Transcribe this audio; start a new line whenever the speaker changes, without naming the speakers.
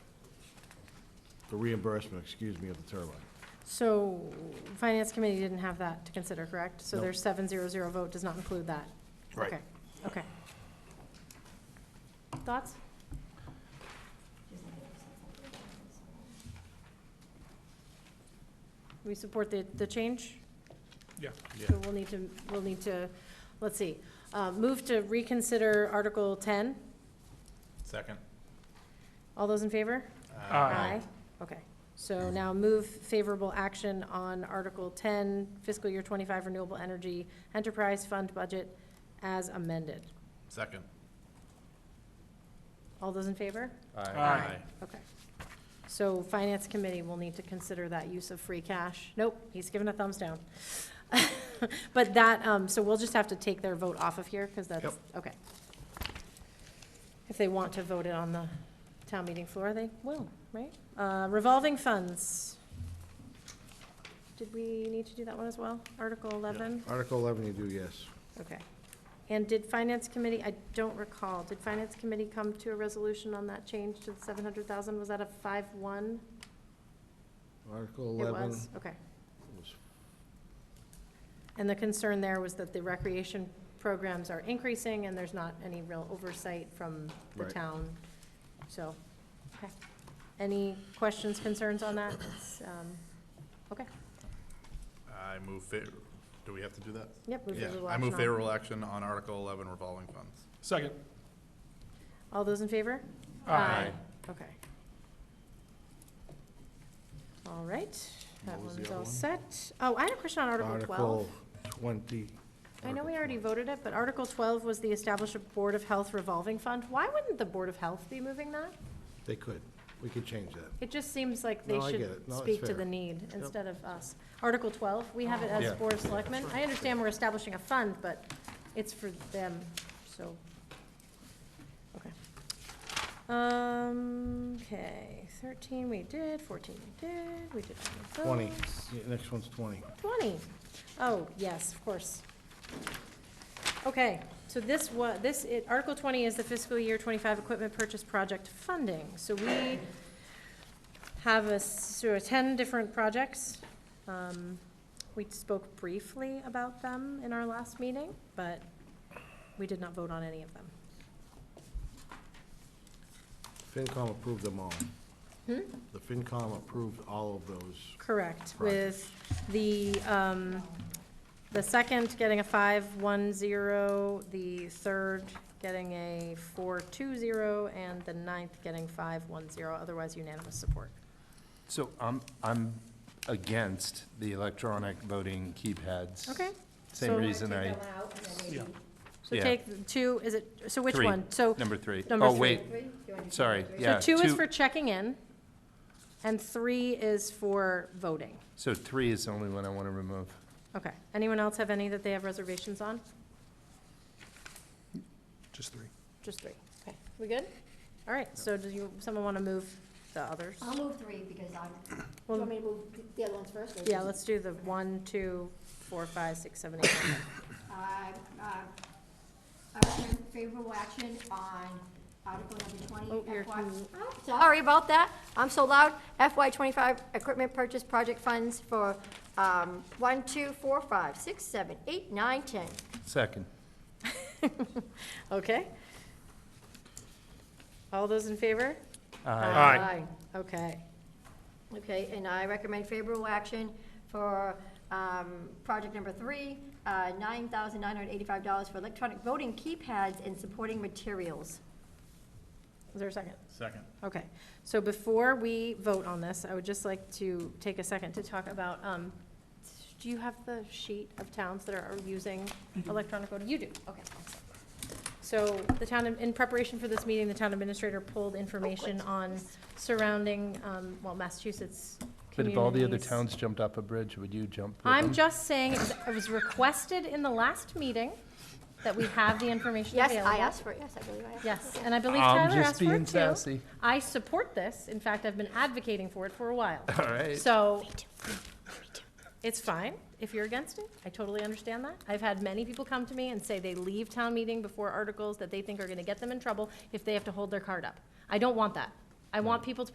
the reimbursement, excuse me, of the turbine.
So, Finance Committee didn't have that to consider, correct? So
No.
their seven zero zero vote does not include that?
Right.
Okay, okay. Thoughts? We support the, the change?
Yeah.
So we'll need to, we'll need to, let's see, uh, move to reconsider Article ten.
Second. Um,
All those in favor?
Aye.
Okay, so now move favorable action on Article ten, fiscal year twenty-five renewable energy enterprise fund budget as amended.
Second.
All those in favor?
Aye.
Okay. So Finance Committee will need to consider that use of free cash. Nope, he's given a thumbs down. But that, um, so we'll just have to take their vote off of here, because that's, okay. If they want to vote it on the town meeting floor, they will, right? Uh, revolving funds. Did we need to do that one as well? Article eleven?
Article 11 you do, yes.
Okay. And did Finance Committee, I don't recall, did Finance Committee come to a resolution on that change to the seven hundred thousand? Was that a five-one?
Article
It
11
was,
was
okay. And the concern there was that the recreation programs are increasing and there's not any real oversight from the
Right.
town. So, okay. Any questions, concerns on that? It's, um, Okay,
I move fa, do we have to do that?
yep. move
Yeah,
favorable
I
action
move
on-
favorable action on Article eleven revolving funds.
Second.
All those in favor?
Aye.
Okay. All right, that
What was the
one's
other
all
one?
set. Oh, I had a question on Article
Article
twelve.
20.
I know we already
Article
voted it, but Article twelve was the establish a Board of Health revolving fund. Why wouldn't the Board of Health be moving that?
20. They could, we could change that.
It just seems like they
No, I get
should
it. No, it's
speak to
fair.
the need instead of us. Article twelve, we have it as
Yeah.
Board of Selectmen. I understand we're establishing a fund, but it's for them, so, okay. Um, okay, thirteen we did, fourteen we did, we did all of
20,
those.
Yeah, next one's 20.
20. Oh, yes, of course. Okay, so this wa, this, i- Article twenty is the fiscal year twenty-five equipment purchase project funding. So we have a, s- so ten different projects. Um, We spoke briefly about them in our last meeting, but we did not vote on any of them.
FinCom approved them all.
Hmm?
The FinCom approved all of those.
Correct,
Projects.
with the, um, the second getting a five-one-zero, the third getting a four-two-zero, and the ninth getting five-one-zero, otherwise unanimous support.
So I'm, I'm against the electronic voting keypads.
Okay,
Same
So-
reason I,
Yeah.
so
Yeah.
take the two, is it, so which
Three.
one? So,
number three.
number
Oh,
three.
wait, sorry,
so
yeah.
two is for checking in, and three is for voting.
So three is the only one I want to remove.
Okay, anyone else have any that they have reservations on?
Just three.
Just three, okay, we good? All right, so does you, someone want to move the others?
I'll move three because I'm, do you
Well-
want me to move the other ones first? or
Yeah,
just-
let's do the one, two, four, five, six, seven, eight, nine.
I, uh, I recommend favorable action on Article
Oh,
number
you're
twenty FY.
too-
I'm Sorry about that, I'm so loud. FY twenty-five equipment purchase project funds for, um, one, two, four, five, six, seven, eight, nine, ten.
Second.
Okay? All those in favor?
Aye.
Aye.
Okay.
Okay, and I recommend favorable action for um, project number three, uh, $9,985 for electronic voting keypads and supporting materials.
Is there a second?
Second.
Okay, so before we vote on this, I would just like to take a second to talk about, um, do you have the sheet of towns that are using electronic voting? You do, okay. excellent. So the town, in preparation for this meeting, the town administrator pulled information on surrounding, um, well, Massachusetts
But if all the other
communities.
towns jumped off a bridge, would you jump with
I'm
them?
just saying, it was- it was requested in the last meeting that we have the information
Yes,
available.
I asked for it, yes, I believe I asked. for it.
Yes, and I believe
I'm
Tyler
just
asked for
being
it too.
sassy.
I support this. In fact, I've been advocating for it for a while.
All right.
So, it's fine if you're against it. I totally understand that. I've had many people come to me and say they leave town meeting before articles that they think are gonna get them in trouble if they have to hold their card up. I don't want that. I want people to